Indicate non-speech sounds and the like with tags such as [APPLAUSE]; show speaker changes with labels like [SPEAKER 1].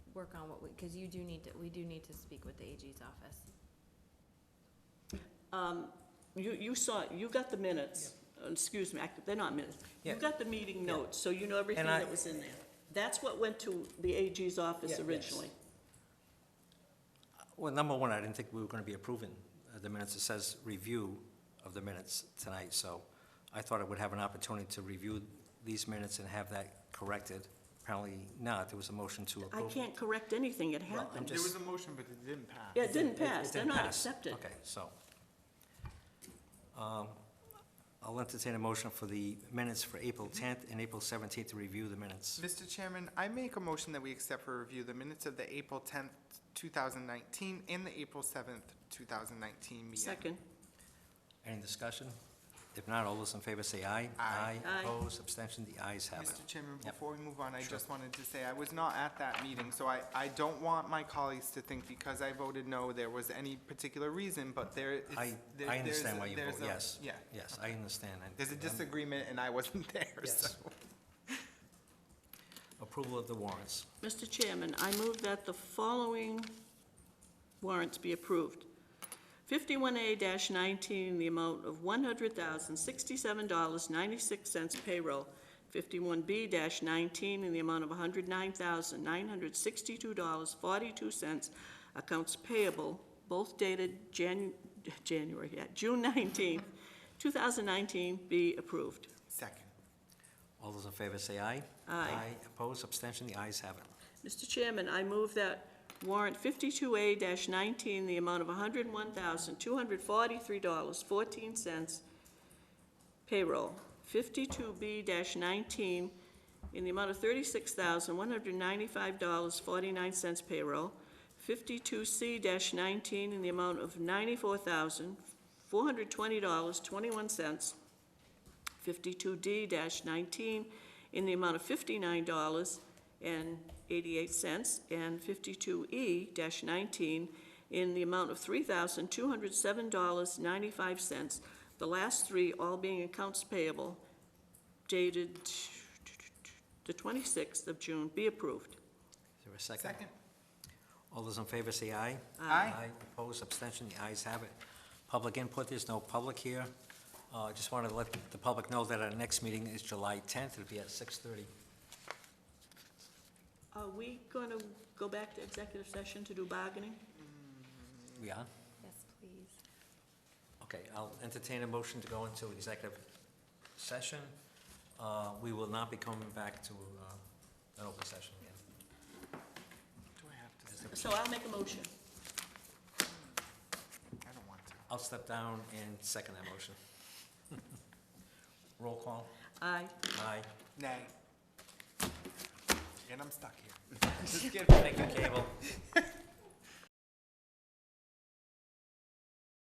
[SPEAKER 1] work on what we, because you do need to, we do need to speak with the AG's office.
[SPEAKER 2] Um, You, you saw, you got the minutes, Uh, excuse me, I- they're not minutes. You
[SPEAKER 3] Yeah.
[SPEAKER 2] got the meeting notes, so you know everything
[SPEAKER 3] I-
[SPEAKER 2] that was in there. That's what went to the AG's office
[SPEAKER 3] Yeah, yes.
[SPEAKER 2] originally.
[SPEAKER 3] Well, number one, I didn't think we were going to be approving uh, the minutes. It says review of the minutes tonight, so I thought I would have an opportunity to review these minutes and have that corrected. Apparently not. There was a motion to
[SPEAKER 2] I
[SPEAKER 3] approve.
[SPEAKER 2] can't correct anything, it
[SPEAKER 3] Well, I'm
[SPEAKER 2] happened.
[SPEAKER 3] just-
[SPEAKER 4] There was a motion, but it didn't pass.
[SPEAKER 2] Yeah, it didn't
[SPEAKER 3] It- it
[SPEAKER 2] pass, they're
[SPEAKER 3] didn't
[SPEAKER 2] not
[SPEAKER 3] pass.
[SPEAKER 2] accepted.
[SPEAKER 3] Okay, so. um, I'll entertain a motion for the minutes for April 10th and April 17th to review the minutes.
[SPEAKER 4] Mr. Chairman, I make a motion that we accept for review the minutes of the April tenth, two thousand nineteen, and the April seventh, two thousand nineteen meeting.
[SPEAKER 2] Second,
[SPEAKER 3] Any discussion? If not, all those in favor say aye.
[SPEAKER 4] Aye.
[SPEAKER 2] Aye.
[SPEAKER 3] Opposed, abstention, the ayes have it.
[SPEAKER 4] Mr. Chairman,
[SPEAKER 3] Yep.
[SPEAKER 4] before we move on, I
[SPEAKER 3] Sure.
[SPEAKER 4] just wanted to say, I was not at that meeting, so I, I don't want my colleagues to think because I voted no, there was any particular reason, but there is.
[SPEAKER 3] I,
[SPEAKER 4] there-
[SPEAKER 3] I
[SPEAKER 4] there's
[SPEAKER 3] understand
[SPEAKER 4] a-
[SPEAKER 3] why you
[SPEAKER 4] there's
[SPEAKER 3] vote
[SPEAKER 4] a-
[SPEAKER 3] yes.
[SPEAKER 4] Yeah,
[SPEAKER 3] Yes, I understand. and-
[SPEAKER 4] there's a
[SPEAKER 3] and
[SPEAKER 4] disagreement and I wasn't [LAUGHS] there, so.
[SPEAKER 3] Yes. Approval of the warrants.
[SPEAKER 2] Mr. Chairman, I move that the following warrants be approved. 51A-19, the amount of $100,067.96 payroll. 51B-19, in the amount of $109,962.42 accounts payable, both dated Jan, January, yeah, June 19th, 2019, be approved.
[SPEAKER 4] Second.
[SPEAKER 3] All those in favor say aye.
[SPEAKER 2] Aye.
[SPEAKER 3] Opposed, abstention, the ayes have it.
[SPEAKER 2] Mr. Chairman, I move that warrant 52A-19, the amount of $101,243.14 payroll, 52B-19, in the amount of $36,195.49 payroll, 52C-19, in the amount of $94,420.21, 52D-19, in the amount of fifty-nine dollars and eighty-eight cents, and fifty-two E nineteen in the amount of three thousand two hundred seven dollars ninety-five cents, the last three all being accounts payable dated the twenty-sixth of June, be approved.
[SPEAKER 3] Is there a second?
[SPEAKER 4] Second.
[SPEAKER 3] All those in favor say aye.
[SPEAKER 4] Aye.
[SPEAKER 3] Opposed, abstention, the ayes have it. Public input, there's no public here. Uh, I just wanted to let the public know that our next meeting is July 10th. It'll be at 6:30.
[SPEAKER 2] Are we gonna go back to executive session to do bargaining?
[SPEAKER 3] We are?
[SPEAKER 1] Yes, please.
[SPEAKER 3] Okay, I'll entertain a motion to go into executive session. Uh, We will not be coming back to uh, an open session again.
[SPEAKER 4] Do I have to
[SPEAKER 3] Is
[SPEAKER 4] say?
[SPEAKER 3] there-
[SPEAKER 2] So I'll make a motion.
[SPEAKER 4] I don't want to.
[SPEAKER 3] I'll step down and second that motion. [LAUGHS] Roll call.
[SPEAKER 2] Aye.
[SPEAKER 3] Aye.
[SPEAKER 4] Nay. And I'm stuck here. [LAUGHS]
[SPEAKER 3] Thank you, Cable.